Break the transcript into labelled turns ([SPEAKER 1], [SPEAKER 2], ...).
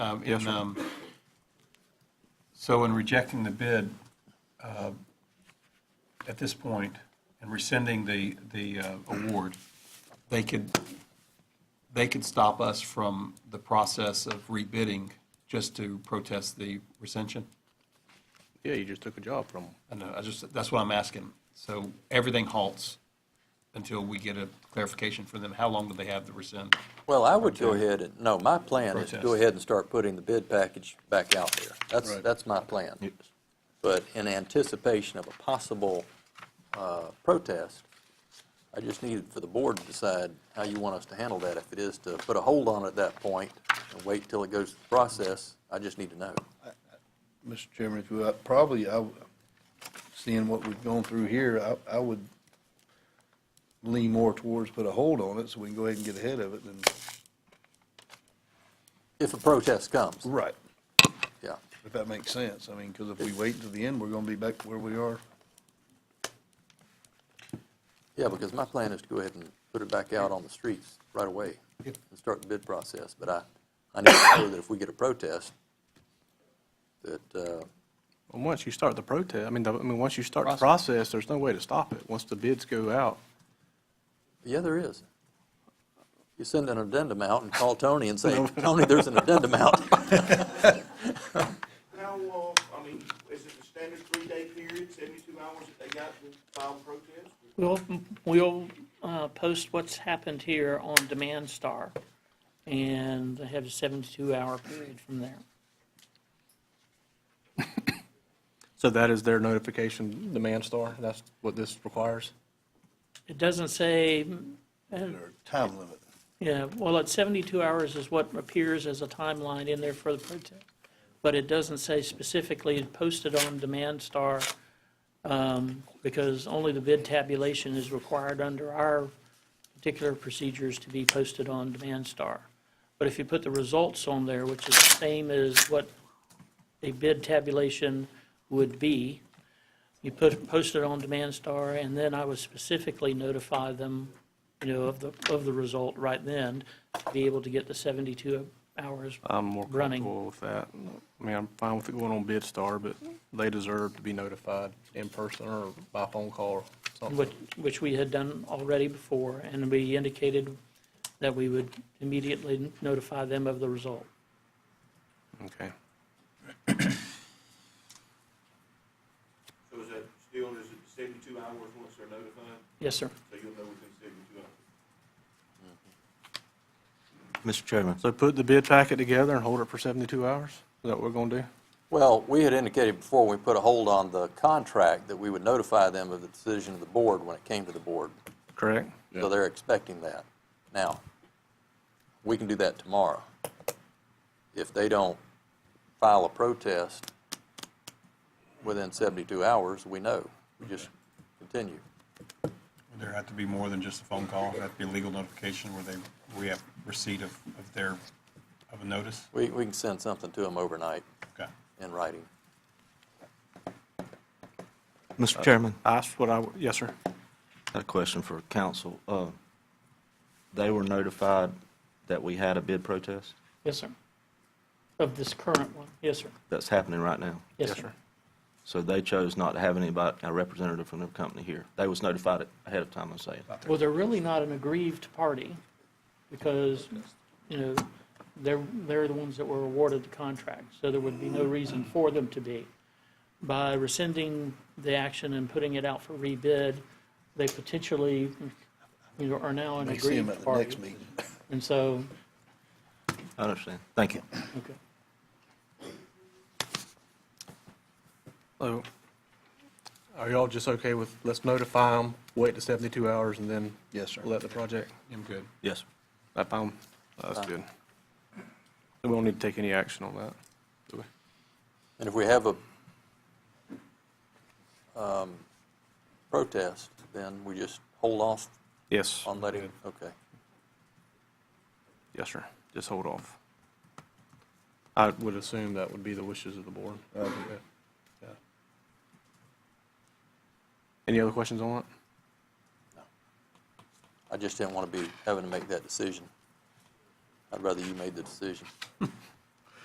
[SPEAKER 1] um,
[SPEAKER 2] Yes,
[SPEAKER 1] in,
[SPEAKER 2] sir.
[SPEAKER 1] um, so in rejecting the bid, uh, at this point, and rescinding the, the uh, award, they could, they could stop us from the process of rebidding just to protest the rescension?
[SPEAKER 2] Yeah, you just took a job from them.
[SPEAKER 1] I know, I just, that's what I'm asking. So everything halts until we get a clarification from them. How long do they have to rescind?
[SPEAKER 3] Well, I would go ahead and, no, my plan is to
[SPEAKER 1] Protest.
[SPEAKER 3] go ahead and start putting the bid package back out there. That's,
[SPEAKER 1] Right.
[SPEAKER 3] that's my plan. But in anticipation of a possible uh, protest, I just need for the board to decide how you want us to handle that. If it is to put a hold on it at that point and wait till it goes through the process, I just need to know.
[SPEAKER 4] Mr. Chairman, if you, I- probably, I, w- seeing what we've gone through here, I, I would lean more towards put a hold on it, so we can go ahead and get ahead of it, and.
[SPEAKER 3] If a protest comes,
[SPEAKER 4] Right.
[SPEAKER 3] yeah.
[SPEAKER 4] If that makes sense, I mean, because if we wait until the end, we're gonna be back where we are.
[SPEAKER 3] Yeah, because my plan is to go ahead and put it back out on the streets right away and start the bid process. But I, I need to know that if we get a protest, that, uh,
[SPEAKER 2] And once you start the protest, I mean, the- I mean, once you start the process, there's no way to stop it. Once the bids go out,
[SPEAKER 3] yeah, there is. You send an addendum out and call Tony and say, Tony, there's an addendum out.
[SPEAKER 5] How, uh, I mean, is it the standard three-day period, seventy-two hours that they got to file a protest?
[SPEAKER 6] We'll, we'll uh, post what's happened here on Demand Star and have a 72-hour period from there.
[SPEAKER 2] so that is their notification, the Manstar. That's what this requires.
[SPEAKER 6] It doesn't say, uh,
[SPEAKER 4] Time limit.
[SPEAKER 6] yeah, well, at 72 hours is what appears as a timeline in there for the protest, but it doesn't say specifically posted on Demand Star um, because only the bid tabulation is required under our particular procedures to be posted on Demand Star. But if you put the results on there, which is the same as what a bid tabulation would be, you put, post it on Demand Star, and then I would specifically notify them, you know, of the, of the result right then, to be able to get the 72 hours.
[SPEAKER 2] I'm more
[SPEAKER 6] Running.
[SPEAKER 2] comfortable with that. I mean, I'm fine with it going on Bidstar, but they deserve to be notified in person or by phone call or something.
[SPEAKER 6] which, which we had done already before, and we indicated that we would immediately notify them of the result.
[SPEAKER 2] Okay.
[SPEAKER 5] So is that still, is it seventy-two hours once they're notified,
[SPEAKER 6] Yes, sir.
[SPEAKER 5] so you'll know within seventy-two hours?
[SPEAKER 7] Mr. Chairman,
[SPEAKER 2] So put the bid packet together and hold it for 72 hours? Is that what we're going to do?
[SPEAKER 3] Well, we had indicated before we put a hold on the contract that we would notify them of the decision of the board when it came to the board.
[SPEAKER 2] Correct?
[SPEAKER 3] So they're expecting that. Now, we can do that tomorrow. If they don't file a protest within 72 hours, we know. We just continue.
[SPEAKER 1] There had to be more than just a phone call. There had to be legal notification where they, we have receipt of, of their, of a notice.
[SPEAKER 3] We, we can send something to them overnight
[SPEAKER 1] Okay.
[SPEAKER 3] in writing.
[SPEAKER 7] Mr. Chairman,
[SPEAKER 2] That's what I, would- yes, sir.
[SPEAKER 7] I had a question for council. Uh, They were notified that we had a bid protest
[SPEAKER 6] Yes, sir. Of this current one. Yes, sir.
[SPEAKER 7] that's happening right now.
[SPEAKER 6] Yes, sir.
[SPEAKER 7] So they chose not to have anybody, a representative from their company here. They was notified ahead of time, I'm saying.
[SPEAKER 6] Well, they're really not an aggrieved party because, you know, they're, they're the ones that were awarded the contract, so there would be no reason for them to be. By rescinding the action and putting it out for rebid, they potentially, you know, are now an
[SPEAKER 4] May see him
[SPEAKER 6] aggrieved
[SPEAKER 4] at the next
[SPEAKER 6] party.
[SPEAKER 4] meeting.
[SPEAKER 6] And so,
[SPEAKER 7] I understand. Thank you.
[SPEAKER 6] okay.
[SPEAKER 2] So are y'all just okay with, let's notify them, wait to 72 hours, and then?
[SPEAKER 4] Yes, sir.
[SPEAKER 2] Let the project?
[SPEAKER 1] I'm good.
[SPEAKER 7] Yes.
[SPEAKER 2] That found, that's good. We don't need to take any action on that, do we?
[SPEAKER 3] And if we have a um, protest, then we just hold off
[SPEAKER 2] Yes,
[SPEAKER 3] on letting, okay.
[SPEAKER 2] yes, sir. Just hold off. I would assume that would be the wishes of the board. Yeah. Any other questions on it?
[SPEAKER 3] I just didn't want to be having to make that decision. I'd rather you made the decision.